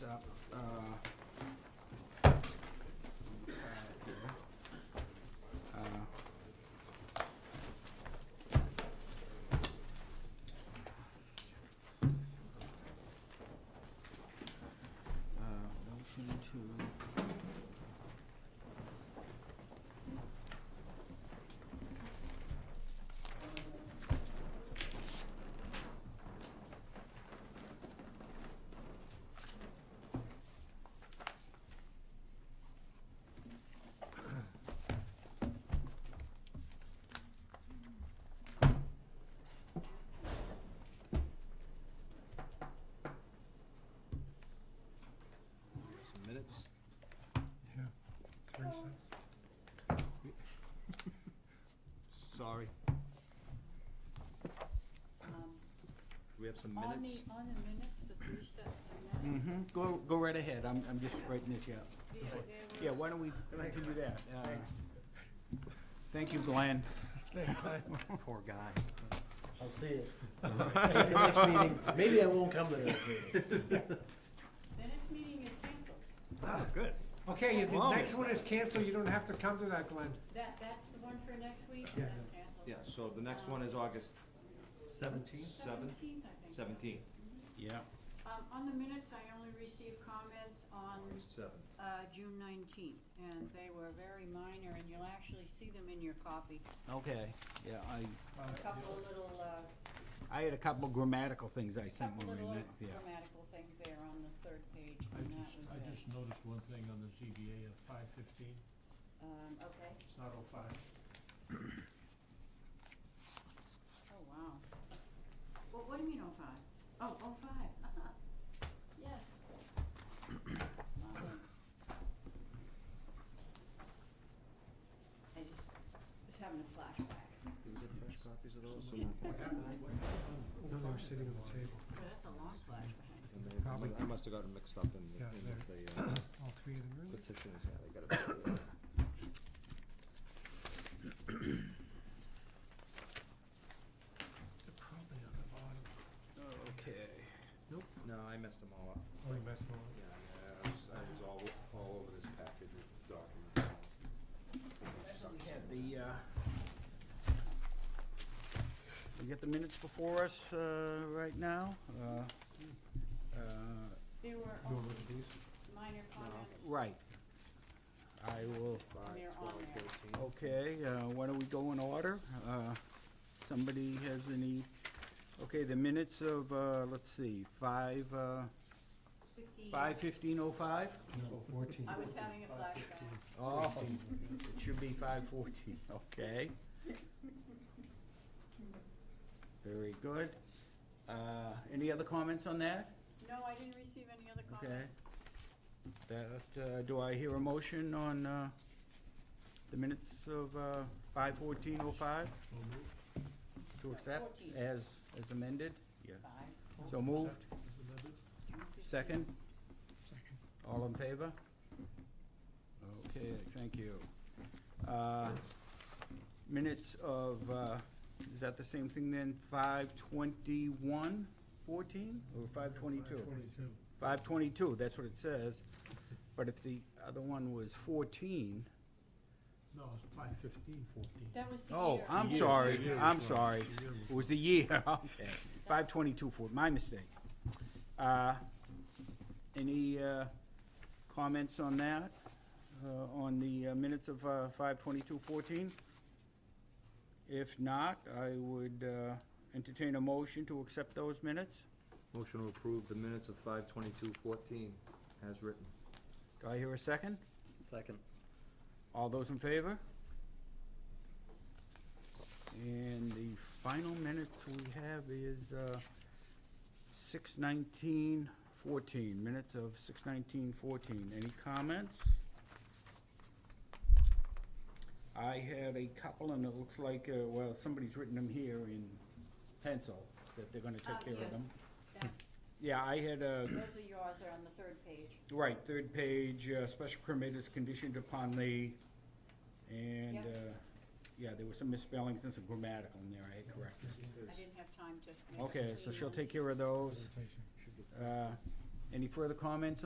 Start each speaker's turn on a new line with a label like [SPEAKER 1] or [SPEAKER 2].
[SPEAKER 1] uh,
[SPEAKER 2] some
[SPEAKER 3] On
[SPEAKER 2] minutes?
[SPEAKER 3] the, on the minutes, the three sets of minutes,
[SPEAKER 1] Mm-hmm, go, go right ahead, I'm, I'm just writing this, yeah.
[SPEAKER 3] yeah, they
[SPEAKER 1] Yeah,
[SPEAKER 3] were,
[SPEAKER 1] why don't we continue that? Uh, Thank you, Glenn.
[SPEAKER 2] Poor guy.
[SPEAKER 4] I'll see it. Maybe next meeting, maybe I won't come to the next meeting.
[SPEAKER 3] the next meeting is canceled.
[SPEAKER 2] Oh, good.
[SPEAKER 5] Okay, the
[SPEAKER 1] Wow.
[SPEAKER 5] next one is canceled, you don't have to come to that, Glenn.
[SPEAKER 3] That, that's the one for next week,
[SPEAKER 5] Yeah.
[SPEAKER 3] that's canceled.
[SPEAKER 6] Yeah, so the next one is August
[SPEAKER 4] Seventeen?
[SPEAKER 6] seventh,
[SPEAKER 3] Seventeenth, I think.
[SPEAKER 6] seventeenth,
[SPEAKER 1] Yeah.
[SPEAKER 3] Um, on the minutes, I only received comments on
[SPEAKER 6] August seventh.
[SPEAKER 3] uh, June nineteenth, and they were very minor, and you'll actually see them in your copy.
[SPEAKER 1] Okay, yeah, I,
[SPEAKER 3] A couple of little, uh,
[SPEAKER 1] I had a couple grammatical things I sent
[SPEAKER 3] couple
[SPEAKER 1] when we
[SPEAKER 3] little
[SPEAKER 1] met, yeah.
[SPEAKER 3] grammatical things there on the third page,
[SPEAKER 7] I
[SPEAKER 3] and that
[SPEAKER 7] just,
[SPEAKER 3] was
[SPEAKER 7] I
[SPEAKER 3] it.
[SPEAKER 7] just noticed one thing on the ZBA at five fifteen,
[SPEAKER 3] Um, okay,
[SPEAKER 7] it's not oh five.
[SPEAKER 3] oh, wow. Well, what do you mean oh five? Oh, oh five, uh-huh, yes. Um, I just was having a flashback.
[SPEAKER 6] Is it fresh copies of those?
[SPEAKER 7] What happened, what happened?
[SPEAKER 5] No, they were sitting on the table,
[SPEAKER 3] Well, Oh, that's a long flashback.
[SPEAKER 5] Probably.
[SPEAKER 6] I must have gotten mixed up in the,
[SPEAKER 5] Yeah,
[SPEAKER 6] in
[SPEAKER 5] there.
[SPEAKER 6] the uh,
[SPEAKER 5] all three of them, really?
[SPEAKER 6] petitions, yeah, they got it.
[SPEAKER 5] They're probably on the bottom.
[SPEAKER 1] Okay.
[SPEAKER 6] No, I messed them all up.
[SPEAKER 5] Oh, you messed them up.
[SPEAKER 6] Yeah, I was, I was all, all over this package of documents.
[SPEAKER 1] The, uh, we got the minutes before us, uh, right now, uh, uh,
[SPEAKER 3] There
[SPEAKER 5] You
[SPEAKER 3] were only
[SPEAKER 5] wanna look at these?
[SPEAKER 3] minor comments,
[SPEAKER 1] right. I will,
[SPEAKER 3] and they're on there.
[SPEAKER 1] okay, uh, why don't we go in order? Uh, somebody has any, okay, the minutes of, uh, let's see, five, uh,
[SPEAKER 3] Fifty-
[SPEAKER 1] Five fifteen oh five?
[SPEAKER 5] No, fourteen.
[SPEAKER 3] I was having a flashback.
[SPEAKER 1] Oh, it should be five fourteen, okay. Very good. Uh, any other comments on that?
[SPEAKER 3] No, I didn't receive any other
[SPEAKER 1] Okay.
[SPEAKER 3] comments.
[SPEAKER 1] That, uh, do I hear a motion on, uh, the minutes of, uh, five fourteen oh five
[SPEAKER 7] So moved.
[SPEAKER 1] to accept
[SPEAKER 3] 14.
[SPEAKER 1] as, as amended? Yeah.
[SPEAKER 3] Five,
[SPEAKER 1] So moved,
[SPEAKER 7] Is it amended?
[SPEAKER 3] June 15.
[SPEAKER 1] second? All in favor? Okay, thank you. Uh, Minutes of, uh, is that the same thing then, five twenty-one fourteen, or five twenty-two?
[SPEAKER 7] Twenty-two.
[SPEAKER 1] Five twenty-two, that's what it says, but if the other one was fourteen,
[SPEAKER 7] No, it's five fifteen, fourteen.
[SPEAKER 3] That was the year. Uh,
[SPEAKER 1] oh, I'm
[SPEAKER 7] year.
[SPEAKER 1] sorry,
[SPEAKER 7] The year
[SPEAKER 1] I'm
[SPEAKER 7] was
[SPEAKER 1] sorry,
[SPEAKER 7] The year was-
[SPEAKER 1] it was the year, okay, five twenty-two for, my mistake. Uh, Any uh, comments on that, uh, on the uh, minutes of five twenty-two fourteen? If not, I would uh, entertain a motion to accept those minutes.
[SPEAKER 6] Motion to approve the minutes of five twenty-two fourteen as written.
[SPEAKER 1] Do I hear a second?
[SPEAKER 4] Second.
[SPEAKER 1] All those in favor? And the final minutes we have is uh, six nineteen fourteen, minutes of six nineteen fourteen. Any comments? I have a couple, and it looks like, uh, well, somebody's written them here in pencil, that they're gonna
[SPEAKER 3] Ah,
[SPEAKER 1] take care of
[SPEAKER 3] yes.
[SPEAKER 1] them.
[SPEAKER 3] That-
[SPEAKER 1] Yeah, I had uh, a
[SPEAKER 3] Those are yours, they're on the third page.
[SPEAKER 1] Right, third page, uh, special permit is conditioned upon the, and,
[SPEAKER 3] Yep.
[SPEAKER 1] uh, yeah, there were some misspellings and some grammatical in there, I had corrected.
[SPEAKER 3] I didn't have time to. make up
[SPEAKER 1] Okay, so
[SPEAKER 3] the
[SPEAKER 1] she'll
[SPEAKER 3] emails.
[SPEAKER 1] take care of those.
[SPEAKER 5] Presentation.
[SPEAKER 1] Uh, Any further comments